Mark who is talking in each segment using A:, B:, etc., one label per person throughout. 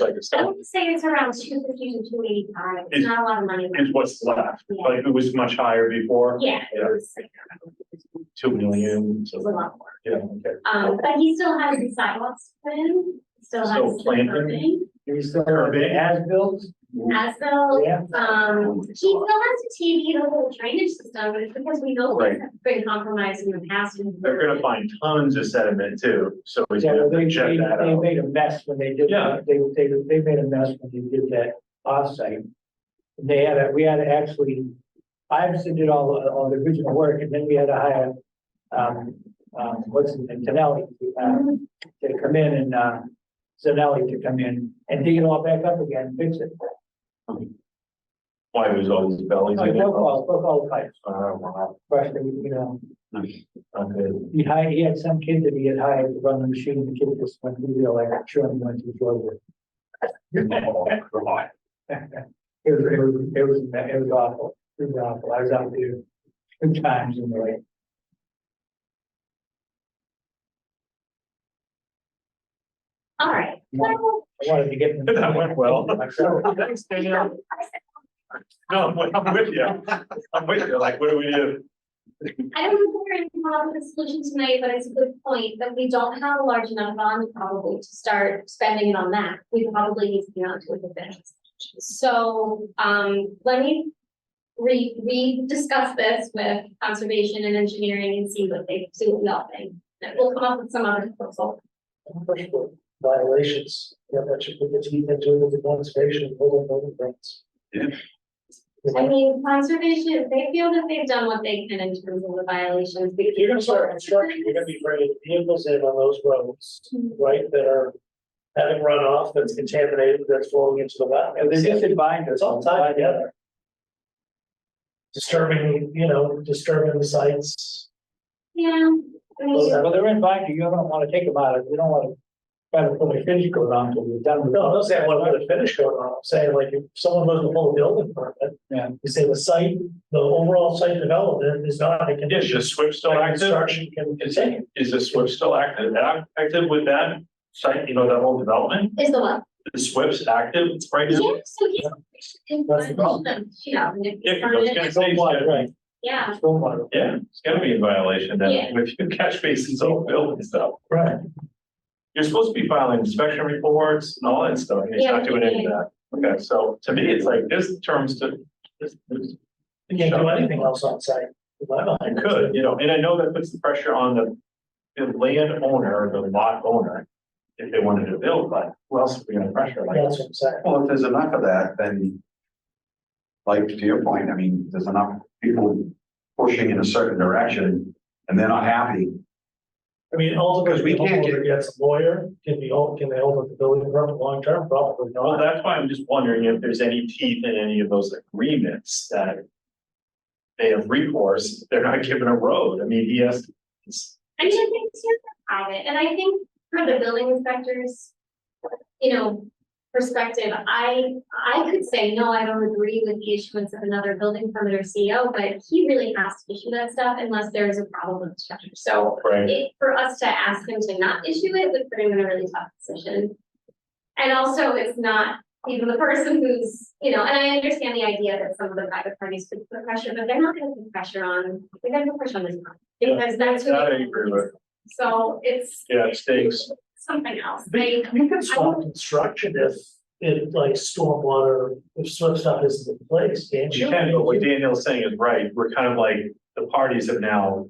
A: like it's
B: I would say it's around two fifty to two eighty-five, it's
A: Is-
B: not a lot of money.
A: is what's left,
B: Yeah.
A: like it was much higher before,
B: Yeah, it
A: Yeah.
B: was like,
A: two million,
B: it was a
A: so,
B: lot more.
A: yeah, okay.
B: Um, but he still has his sidewalks planned, still has.
A: Still
B: the
A: planted?
B: curbing,
C: You still
A: Or
C: have
A: big.
C: the as-built?
B: Asphalt,
C: Yeah.
B: um, he still has to TV the whole drainage system, but it's because we know
A: Right.
B: things have been compromised in the past. and-
A: They're gonna find tons of sediment too, so we
C: Yeah, well,
A: have
C: they,
A: to check
C: they,
A: that
C: they
A: out.
C: made a mess when they did,
A: Yeah.
C: that. they, they, they made a mess when they did that offsite. They had, a- we had to actually, I obviously did all, all the original work, and then we had to hire, um, um, what's his name, Zanelli, uh, to come in and, uh, Zanelli to come in and dig it all back up again, fix it.
A: Why there's all these bellies
C: No,
A: in
C: Oh, broke
A: it?
C: all, broke all the pipes,
A: Oh, wow,
C: crushed it, you know,
A: I'm good.
C: he hired, he had some kid that he had hired to run the machine, the kid just went, we were like, sure, I'm going to enjoy it.
A: Oh, come on.
C: It was, it was, it was, it was awful, it was awful, I was out there two times in the rain.
B: All right. So,
C: I wanted to get.
A: That went well.
C: Myself.
A: Thanks, Daniel. No, I'm with- I'm with you. I'm with you, like, what do we do?
B: I don't know if we're gonna come up with a solution tonight, but it's a good point that we don't have a large enough bond probably to start spending it on that. We probably need to be on to it a bit. So, um, let me re, re-discuss this with conservation and engineering and see what they, see what we all think. And we'll come up with some other proposal.
C: Violations, yeah, that should put the team into it with the conservation, hold on, hold on, thanks.
B: I mean, conservation, they feel that they've done what they can in terms of the violations.
C: If you're gonna start construction, you're gonna be bringing vehicles in on those roads, right, that are having runoff that's contaminated, that's flowing into the wetland. And they just combined It's all tied together. Disturbing, you know, disturbing the sites.
B: Yeah. I mean,
C: Well, they're in binder, you don't wanna take them out, you don't wanna try to put a finish coat on till you're done. No, I'm not saying I wanna put a finish coat on, I'm saying like if someone goes to pull a building permit. Yeah. You say the site, the overall site development is not a
A: Is
C: condition.
A: the SWIP still active?
C: Construction can
A: Is,
C: continue.
A: is the SWIP still active? Ac- Active with that site, you know, that whole development?
B: Is the what?
A: The SWIP's active right
B: Yeah,
A: now?
B: so he's.
C: That's the problem.
B: Yeah. and if
A: Yeah,
B: it's
A: 'cause I was gonna
B: permanent,
A: say, it's gotta-
C: Right.
B: Yeah,
C: Stormwater.
A: yeah, it's gonna be in violation
B: Yeah.
A: then, if you catch bases all built and stuff.
C: Right.
A: You're supposed to be filing inspection reports and all that stuff, and he's
B: Yeah,
A: not doing any of
B: yeah.
A: that. Okay, so to me, it's like, this terms to. this- this-
C: You can't do anything else on site. in my
A: It
C: mind.
A: could, you know, and I know that puts the pressure on the, the landowner, or the lot owner, if they wanted to build, but who else are we gonna pressure like?
C: That's what I'm saying.
D: Well, if there's enough of that, then. Like to your point, I mean, there's enough people pushing in a certain direction and they're not happy.
C: I mean,
D: Because
C: ultimately,
D: we
C: the
D: can't get-
C: homeowner gets a lawyer, can be, own- can they own the building permit long term? Probably
A: Well,
C: not.
A: that's why I'm just wondering if there's any teeth in any of those agreements that. They have recourse, they're not given a road, I mean, he has. it's-
B: I mean, I think it's private, and I think for the building inspectors. You know, perspective, I, I could say, no, I don't agree with the issuance of another building permit or CO, but he really has to issue that stuff unless there is a problem with the structure, so.
A: Right.
B: it, for us to ask him to not issue it would put him in a really tough position. And also, it's not even the person who's, you know, and I understand the idea that some of the private parties could put pressure, but they're not gonna put pressure on, they're gonna put pressure on this one. Because that's who.
A: That I agree with.
B: So it's
A: Yeah, it stinks.
B: something else, they,
C: You can
B: stop
C: construction if, if like stormwater, if sort of stuff isn't in place, can't
A: You can, but what Daniel's saying is right, we're kind of like, the parties have now.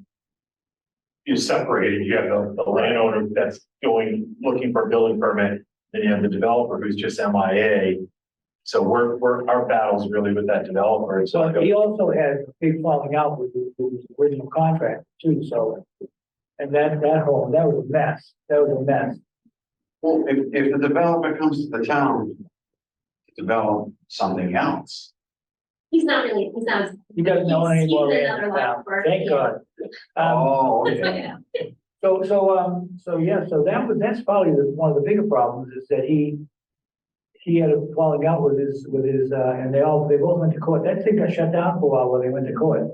A: You separated, you have the, the landowner that's going, looking for a building permit, then you have the developer who's just MIA. So we're, we're, our battle's really with that developer, it's
C: So
A: like,
C: he also had a big falling out with the, with the original contract too, so. And that, that whole, that was a mess, that was a mess.
D: Well, if, if the developer comes to the town. to Develop something else.
B: he's not really, he's not.
C: He doesn't know
B: He's- he's
C: anymore.
B: another lot for-
C: Thank God. Um,
D: Oh, okay.
B: Yeah,
C: So, so, um, so, yeah, so that was, that's probably the- one of the bigger problems is that he. He had a falling out with his, with his, uh, and they all, they both went to court. That thing got shut down for a while when they went to court.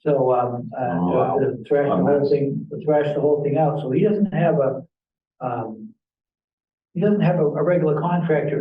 C: So, um,
D: Oh, wow.
C: uh, the- the thrash, the whole thing, the thrash the whole thing out. So he doesn't have a, um. he doesn't have a, a regular contractor